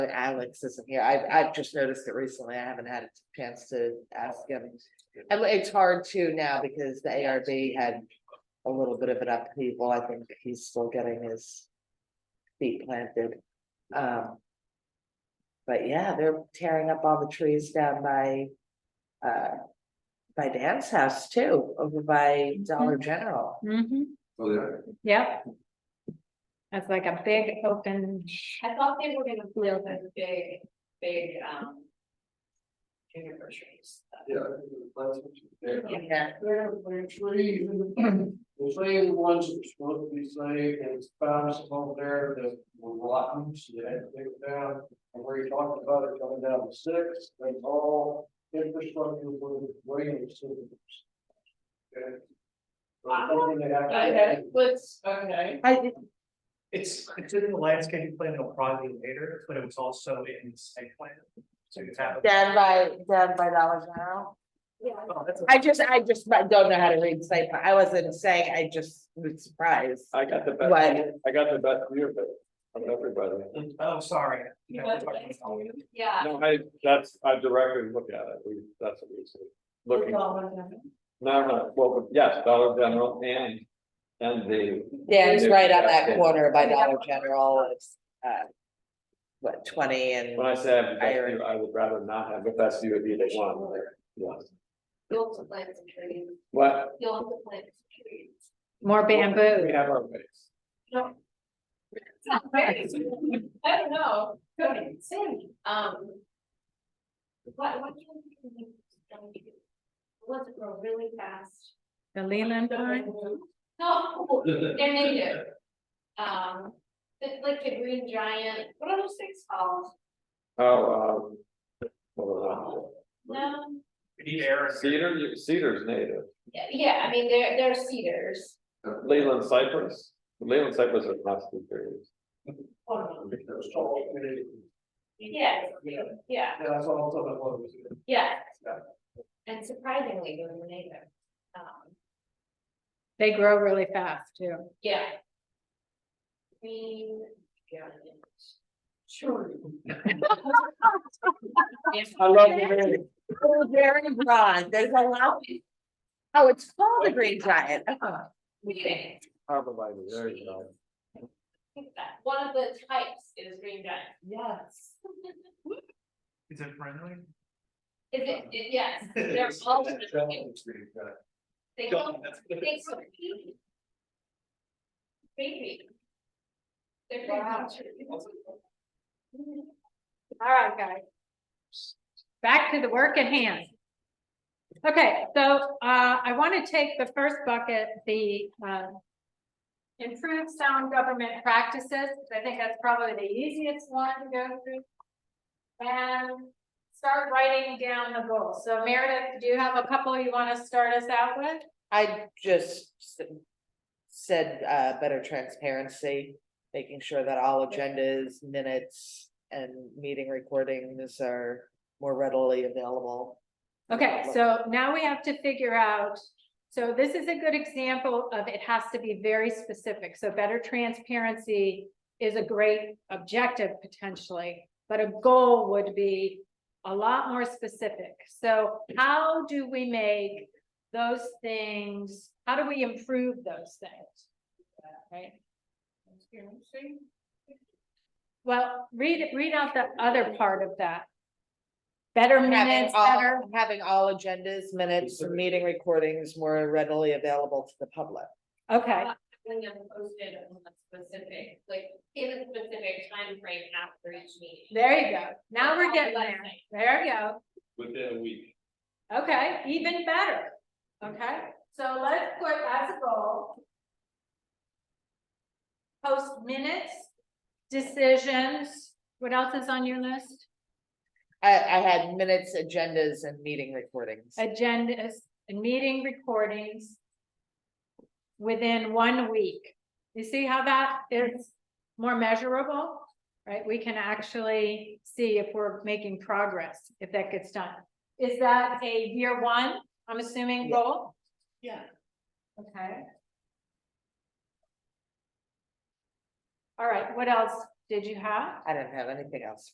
Alex isn't here. I, I've just noticed it recently. I haven't had a chance to ask him. And it's hard too now because the ARB had a little bit of an upheaval. I think he's still getting his feet planted. Um. But yeah, they're tearing up all the trees down by, uh, by Dan's house too, over by Dollar General. Mm-hmm, Oh, yeah. yep. That's like a big open, I thought they were gonna build a big, big, um. Juniper trees. Yeah. They're, they're trees, and the same ones that are supposed to be saved, and it's found some over there that were rotten, so they had to take it down. And where you talked about it coming down to six, they all infrastructure was waiting systems. Okay. So I'm hoping they have to- Okay, let's, okay. I, It's, it's in the landscaping plan, it'll probably be later, but it was also in the site plan. So you have. down by, down by Dollar General. Oh, that's a- I just, I just don't know how to read site, plan. I wasn't saying, I just was surprised. I got the best, What? I got the best view of it from everybody. Oh, sorry. You want to- Yeah. No, I, that's, I directly look at it, we, that's what we see. Looking, no, no, well, yes, Dollar General and, and the, Yeah, it's right on that Yeah. corner by Dollar General, it's, uh. What, twenty and, when I say I have the best view, I would rather not have the best view of either one, like, yes. You'll have to plant some trees, But you'll have to plant some trees. more we bamboo. have our ways. No. It's not very soon. I don't know, Cody, Sandy, um. What, what do you think? Let's grow really fast. The Leland Don't pine, move. No, they're native. Um, it's like the green giant, what are those things called? Oh, um. well, No, We need air. uh, Cedar, you- cedar's native, yeah, yeah, I mean, they're, they're cedars. Leland cypress, Leland cypress are not cedars. One of them. Those tall trees. Yeah, yeah, Yeah, that's all, that's all that was. yeah. And surprisingly, they're native. Um, they grow really fast too. yeah. Green giant. Sure. I love the very broad, there's a lot. Oh, it's called the Green Giant, Oh, Meeting. Arborvitae, there you go. One of the types is green giant. yes. Is it friendly? Is it, it- yes, they're all, different. they go, they go. Baby. They're Wow. pretty. All right, guys. Back to the work at hand. Okay, so uh, I want to take the first bucket, the uh, improve sound government practices. 'cause I think that's probably the easiest one to go through. And start writing down the goals. So Meredith, do you have a couple you want to start us out with? I just s- said, uh, better transparency, making sure that all agendas, minutes, and meeting recordings are more readily available. Okay, so now we have to figure out, so this is a good example of it has to be very specific, so better transparency is a great objective potentially, but a goal would be a lot more specific. So how do we make those things, how do we improve those things? Right? Well, read, read out the other part of that. Better Having minutes, better. all, having all agendas, minutes, and meeting recordings more readily available to the public. Okay, When I'm posted on a specific, like in a specific time frame after each meeting. there you go. Now we're getting Last there. night. There you go. Within a week. Okay, even better. Okay, so let's put as a goal. Post minutes, decisions. What else is on your list? I, I had minutes, agendas, and meeting recordings. Agendas and meeting recordings. Within one week. You see how that is more measurable? Right? We can actually see if we're making progress, if that gets done. Is that a year one, I'm assuming, Yeah. goal? Yeah. Okay. All right, what else did you have? I didn't have anything else